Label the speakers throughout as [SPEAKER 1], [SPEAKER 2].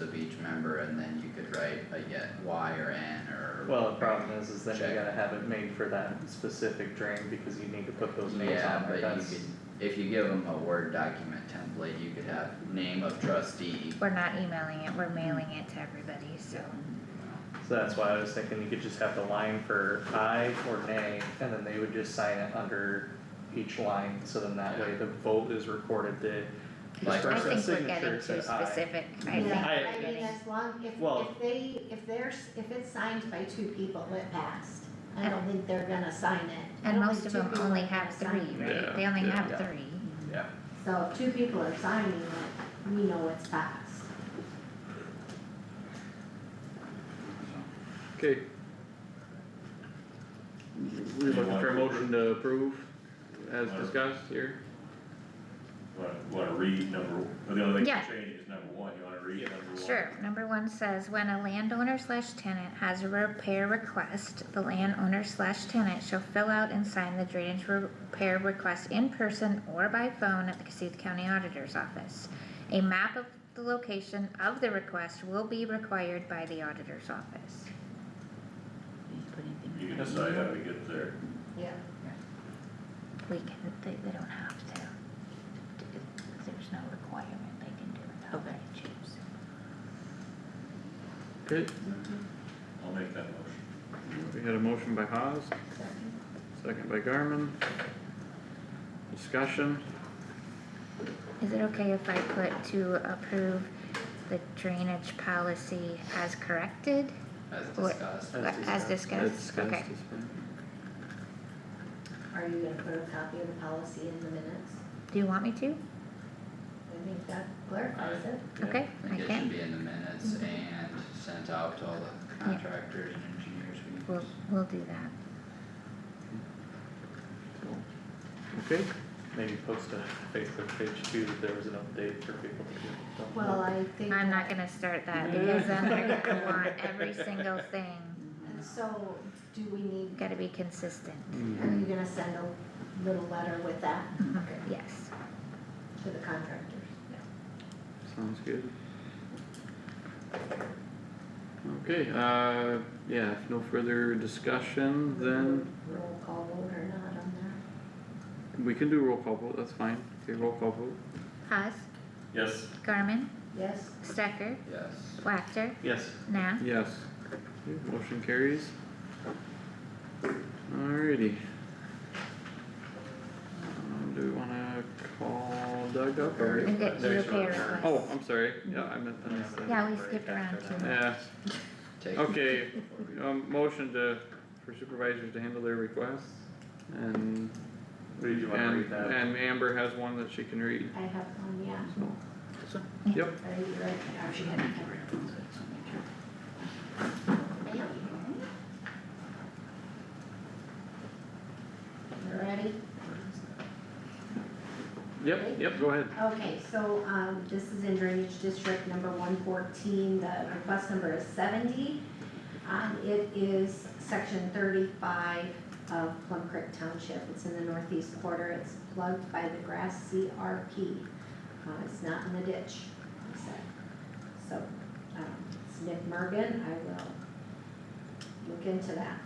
[SPEAKER 1] of each member and then you could write a yet Y or N or.
[SPEAKER 2] Well, the problem is, is then you
[SPEAKER 1] Check.
[SPEAKER 2] gotta have it made for that specific drain, because you need to put those names on there,
[SPEAKER 1] Yeah, but
[SPEAKER 2] that's,
[SPEAKER 1] you could, if you give them a Word document template, you could have name of trustee.
[SPEAKER 3] We're not emailing it, we're mailing it to everybody, so.
[SPEAKER 2] so that's why I was thinking you could just have the line for aye or nay, and then they would just sign it under each line, so then that way the vote is recorded, the
[SPEAKER 1] Like-
[SPEAKER 2] this
[SPEAKER 1] I
[SPEAKER 3] I
[SPEAKER 2] person's
[SPEAKER 3] think we're
[SPEAKER 2] signature
[SPEAKER 3] getting too
[SPEAKER 2] said aye.
[SPEAKER 3] specific, I think.
[SPEAKER 4] Yeah,
[SPEAKER 2] I-
[SPEAKER 4] I mean, as long, if,
[SPEAKER 2] Well-
[SPEAKER 4] if they, if there's, if it's signed by two people, it passed. I don't think they're gonna sign it. I
[SPEAKER 3] And
[SPEAKER 4] don't
[SPEAKER 3] most
[SPEAKER 4] think
[SPEAKER 3] of
[SPEAKER 4] two
[SPEAKER 3] them
[SPEAKER 4] people
[SPEAKER 3] only
[SPEAKER 4] are gonna
[SPEAKER 3] have
[SPEAKER 4] sign
[SPEAKER 3] three,
[SPEAKER 4] it.
[SPEAKER 5] Yeah,
[SPEAKER 3] right? They only
[SPEAKER 5] yeah.
[SPEAKER 3] have
[SPEAKER 2] Yeah.
[SPEAKER 3] three.
[SPEAKER 2] Yeah,
[SPEAKER 4] So if two people are signing it, we know it's passed.
[SPEAKER 5] Okay. We're looking for a motion to approve as discussed here.
[SPEAKER 6] Wanna, wanna read number, or the only thing
[SPEAKER 3] Yeah.
[SPEAKER 6] to change is number one, you wanna read
[SPEAKER 5] Yeah.
[SPEAKER 6] number one?
[SPEAKER 3] Sure, number one says, when a landowner slash tenant has a repair request, the landowner slash tenant shall fill out and sign the drainage repair request in person or by phone at the Cassuth County Auditor's Office. A map of the location of the request will be required by the auditor's office.
[SPEAKER 6] You can decide how to get there,
[SPEAKER 4] Yeah.
[SPEAKER 3] We can, they, they don't have to. There's no requirement, they can do it how they choose.
[SPEAKER 5] Okay,
[SPEAKER 6] I'll make that motion.
[SPEAKER 5] we had a motion by Haas,
[SPEAKER 4] Second.
[SPEAKER 5] second by Garmin. Discussion,
[SPEAKER 3] Is it okay if I put to approve the drainage policy as corrected,
[SPEAKER 1] As
[SPEAKER 3] Or-
[SPEAKER 1] discussed.
[SPEAKER 2] As
[SPEAKER 3] as
[SPEAKER 5] as
[SPEAKER 3] discussed?
[SPEAKER 5] discussed,
[SPEAKER 3] Okay,
[SPEAKER 5] is fine.
[SPEAKER 4] Are you gonna put a copy of the policy in the minutes?
[SPEAKER 3] do you want me to?
[SPEAKER 4] I think that clarifies it.
[SPEAKER 5] Yeah.
[SPEAKER 3] Okay,
[SPEAKER 1] I
[SPEAKER 3] I
[SPEAKER 1] think it should
[SPEAKER 3] can,
[SPEAKER 1] be in the minutes and sent out to all the contractors and engineers we
[SPEAKER 3] we'll,
[SPEAKER 1] use.
[SPEAKER 3] we'll do that.
[SPEAKER 5] Okay,
[SPEAKER 2] maybe post a Facebook page too, that there was an update for people to do. Don't know.
[SPEAKER 4] Well, I think.
[SPEAKER 3] I'm not gonna start that because then they're gonna want every single thing,
[SPEAKER 4] And so, do we need,
[SPEAKER 3] gotta be consistent,
[SPEAKER 4] are
[SPEAKER 5] Mm-hmm.
[SPEAKER 4] you gonna send a little letter with that? Okay.
[SPEAKER 3] yes.
[SPEAKER 4] To the contractors?
[SPEAKER 5] Sounds good. Okay, uh, yeah, if no further discussion, then
[SPEAKER 4] Roll call vote or not on that?
[SPEAKER 5] we can do roll call vote, that's fine, okay, roll call vote.
[SPEAKER 3] Haas,
[SPEAKER 6] Yes,
[SPEAKER 3] Garmin,
[SPEAKER 4] Yes,
[SPEAKER 3] Stecker,
[SPEAKER 1] Yes.
[SPEAKER 3] Wactor,
[SPEAKER 2] Yes,
[SPEAKER 3] Nah.
[SPEAKER 5] Yes. Okay, Motion carries. Alrighty. Um, Do we wanna call Doug up or?
[SPEAKER 3] and get
[SPEAKER 2] Very
[SPEAKER 3] repair
[SPEAKER 2] short.
[SPEAKER 3] request.
[SPEAKER 5] Oh, I'm sorry, yeah, I meant, I missed that.
[SPEAKER 3] Yeah, we skipped around too much.
[SPEAKER 5] Yeah,
[SPEAKER 1] Take-
[SPEAKER 5] okay, um, motion to, for supervisors to handle their requests and.
[SPEAKER 2] Read, you wanna read
[SPEAKER 1] Um,
[SPEAKER 2] that?
[SPEAKER 5] And, and Amber has one that she can read,
[SPEAKER 4] I have one, yeah.
[SPEAKER 5] so. Yep,
[SPEAKER 4] Are you right? Oh, she had it covered. You Ready?
[SPEAKER 5] yep, yep, go ahead.
[SPEAKER 4] Okay, so, um, this is in drainage district number one fourteen, the request number is seventy. Um, it is section thirty-five of Plum Creek Township, it's in the northeast quarter, it's plugged by the grass CRP. Uh, it's not in the ditch, I said. So, um, it's Nick Mergen, I will look into that.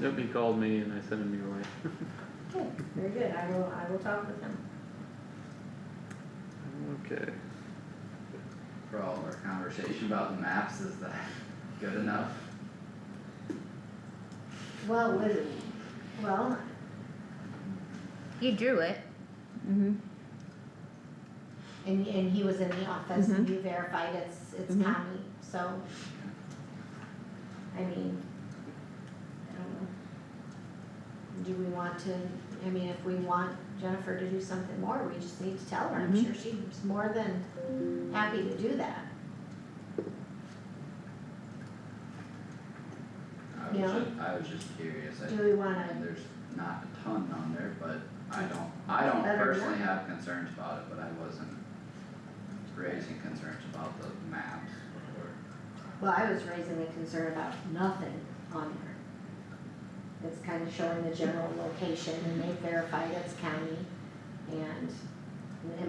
[SPEAKER 5] Yep, he called me and I sent him your way.
[SPEAKER 4] Okay, very good, I will, I will talk with him.
[SPEAKER 5] Okay,
[SPEAKER 1] For all of our conversation about the maps, is that good enough?
[SPEAKER 4] Well, with, well,
[SPEAKER 3] You drew it,
[SPEAKER 4] And, and he was in the office, and you verified it's, it's
[SPEAKER 7] Mhm.
[SPEAKER 4] Tommy, so. I mean, I don't know. Do we want to, I mean, if we want Jennifer to do something more, we just need to tell her, I'm
[SPEAKER 7] Mhm.
[SPEAKER 4] sure she's more than happy to do that.
[SPEAKER 1] I was
[SPEAKER 4] Yeah.
[SPEAKER 1] ju- I was just curious, I,
[SPEAKER 4] Do we
[SPEAKER 1] and
[SPEAKER 4] wanna,
[SPEAKER 1] there's not a ton on there, but I don't, I don't
[SPEAKER 4] Better
[SPEAKER 1] personally
[SPEAKER 4] not.
[SPEAKER 1] have concerns about it, but I wasn't raising concerns about the maps or.
[SPEAKER 4] well, I was raising a concern about nothing on there. It's kind of showing the general location, and they verified it's county, and, and